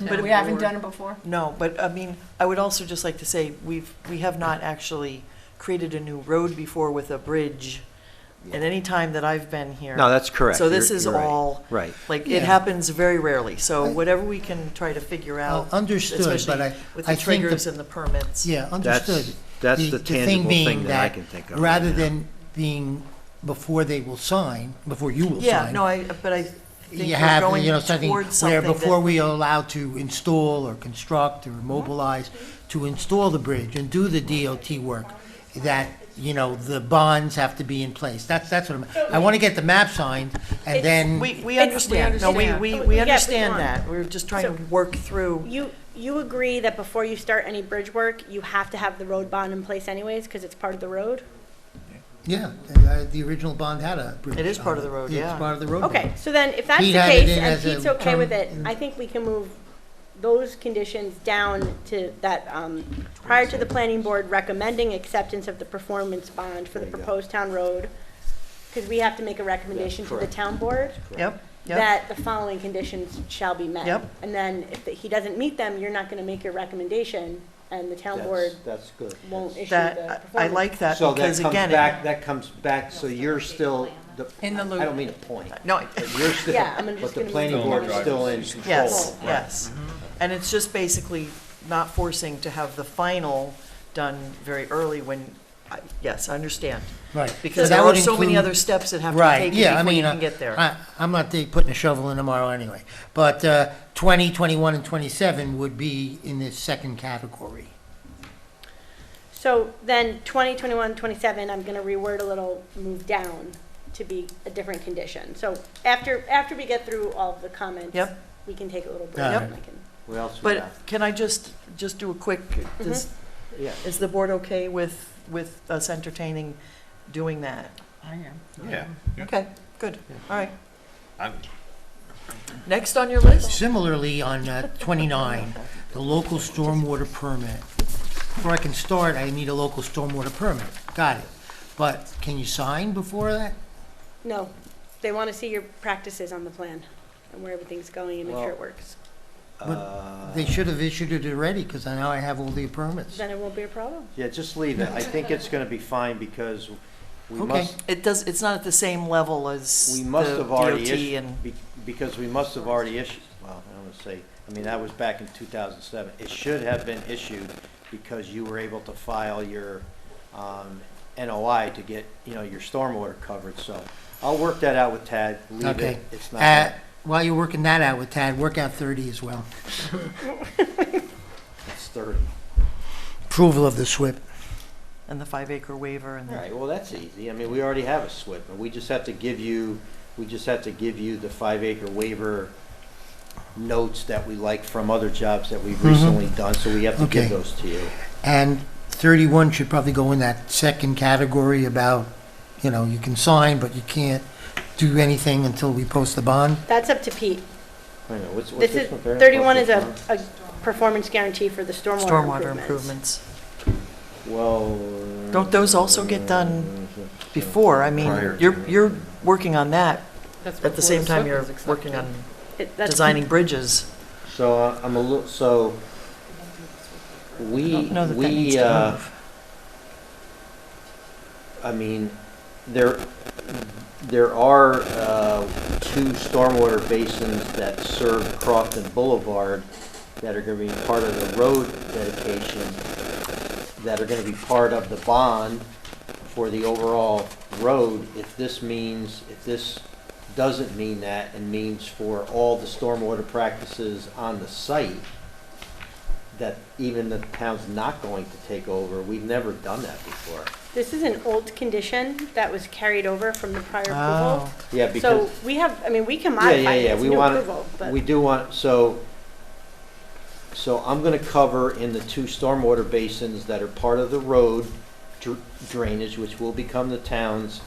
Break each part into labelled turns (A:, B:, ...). A: But
B: We haven't done it before.
A: No, but I mean, I would also just like to say, we've, we have not actually created a new road before with a bridge at any time that I've been here.
C: No, that's correct.
A: So
C: You're-
A: this is
C: you're right.
A: all,
C: Right.
A: like,
D: Yeah.
A: it happens very rarely. So
D: I-
A: whatever we can try to figure out.
D: Oh, understood, but
A: especially
D: I-
A: With
D: I
A: the
D: think the-
A: triggers and the permits.
D: Yeah,
C: That's-
D: understood.
C: that's the tangible thing
D: being
C: that I can think of right
D: Rather
C: now.
D: than being before they will sign, before you will sign.
A: Yeah, no, I, but I think
D: You
A: we're
D: have,
A: going
D: you know, something
A: towards something
D: where before
A: that,
D: we are allowed to install or construct or mobilize, to install the bridge and do the DOT work, that, you know, the bonds have to be in place. That's, that's what I'm, I want to get the map signed and then.
A: we, we
E: It's-
A: understand. No, we,
B: understand.
A: we,
E: Yeah,
A: we
E: but
A: understand
E: Ron-
A: that. We're just trying to
E: So-
A: work through.
E: You, you agree that before you start any bridge work, you have to have the road bond in place anyways, because it's part of the road?
D: Yeah, uh, the original bond had a bridge.
A: It is part of the road, yeah.
D: It's part of the road.
E: Okay, so then if that's the
D: Pete had it
E: case,
D: in
E: and
D: as a
E: Pete's okay
D: term
E: with it,
D: in-
E: I think we can move those conditions down to that, um, prior to the planning board recommending acceptance of the performance bond for the proposed town road, because we have to make a recommendation to the town board
A: Yep, yep.
E: that the following conditions shall be met.
A: Yep.
E: And then if the- he doesn't meet them, you're not gonna make your recommendation, and the town board
F: That's good.
E: won't issue the performance.
A: That, I I like that
F: So that
A: because
F: comes
A: again. it-
F: back, that comes back, so you're still, the-
B: In the
F: I
B: loop.
F: don't mean to point,
A: No, it-
F: but you're still,
E: Yeah, I'm just
F: but the
E: gonna
F: planning
E: move
F: board
E: on.
F: is still in control.
A: Yes, yes.
D: Mm-hmm.
A: And it's just basically not forcing to have the final done very early when, I- yes, I understand.
D: Right.
A: Because
D: So that
A: there are
D: would
A: so many
D: include-
A: other steps that have to be
D: Right, yeah, I
A: taken before you
D: mean,
A: can
D: I-
A: get there.
D: I, I'm not dig- putting a shovel in tomorrow anyway, but uh, 20, 21, and 27 would be in this second category.
E: So then 20, 21, 27, I'm going to reword a little, move down to be a different condition. So after, after we get through all of the comments.
A: Yep.
E: We can take a little break.
D: Yep.
E: and I can-
F: What else we
A: But
F: got?
A: can I just, just do a quick, does-
F: Yeah.
A: is the board okay with, with us entertaining doing that?
B: I am.
G: Yeah.
A: Okay, good, all right.
G: I'm-
A: Next on your list?
D: Similarly, on uh, 29, the local stormwater permit. Before I can start, I need a local stormwater permit. Got it. But can you sign before that?
E: No, they want to see your practices on the plan and where everything's going and make sure it works.
F: Uh,
D: They should have issued it already, because now I have all the permits.
E: Then it won't be a problem.
F: Yeah, just leave it. I think it's gonna be fine because we
D: Okay.
F: must,
A: It does, it's not at the same level as
F: we
A: the
F: must have already
A: DOT
F: issued,
A: and,
F: be- because we must have already issued, well, I don't wanna say, I mean, that was back in two thousand seven. It should have been issued because you were able to file your, um, NOI to get, you know, your stormwater covered, so I'll work that out with Tad, leave
D: Okay.
F: it, it's
D: Uh,
F: not,
D: While you're working that out with Tad, work out 30 as well.
F: it's thirty.
D: Approval of the SWIP.
A: and the five acre waiver and
F: All
A: the,
F: right, well, that's easy. I mean, we already have a SWIP, and we just have to give you, we just have to give you the five acre waiver notes that we like from other jobs that we've recently done, so we have to
D: Mm-hmm. Okay.
F: give those to you.
D: And 31 should probably go in that second category about, you know, you can sign, but you can't do anything until we post the bond.
E: That's up to Pete.
F: Wait a minute, what's, what's
E: This
F: this
E: is,
F: one?
E: 31 is a, a performance guarantee for the stormwater
A: stormwater
E: improvements.
A: improvements.
F: Well.
A: Don't those also get done
F: uh,
A: before? I mean,
G: Prior
A: you're,
G: to.
A: you're working on that
B: That's
A: at the
B: before
A: same
B: the
A: time
B: SWIP
A: you're
B: was accepted.
A: working on
E: It- that's-
A: designing bridges.
F: So uh, I'm a little, so
A: I
F: we,
A: don't know that that needs
F: we,
A: to
F: uh,
A: move.
F: I mean, there, there are uh, two stormwater basins that serve Crofton Boulevard that are going to be part of the road dedication, that are going to be part of the bond for the overall road. If this means, if this doesn't mean that and means for all the stormwater practices on the site, that even the town's not going to take over, we've never done that before.
E: This is an old condition that was carried over from the prior approval.
A: Oh,
F: Yeah, because,
E: So we have, I mean, we can
F: Yeah, yeah,
E: modify it,
F: yeah,
E: it's
F: we
E: new
F: wanna-
E: approval, but.
F: we do want, so, so I'm gonna cover in the two stormwater basins that are part of the road dr- drainage, which will become the town's,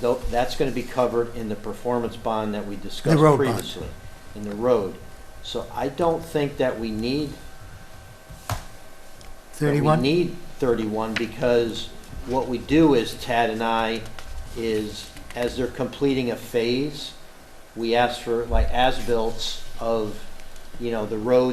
F: tho- that's gonna be covered in the performance bond that we discussed
D: The road bond.
F: previously. In the road. So I don't think that we need that We
D: 31?
F: need 31 because what we do is, Tad and I, is as they're completing a phase, we ask for like as-bills of, you know, the roads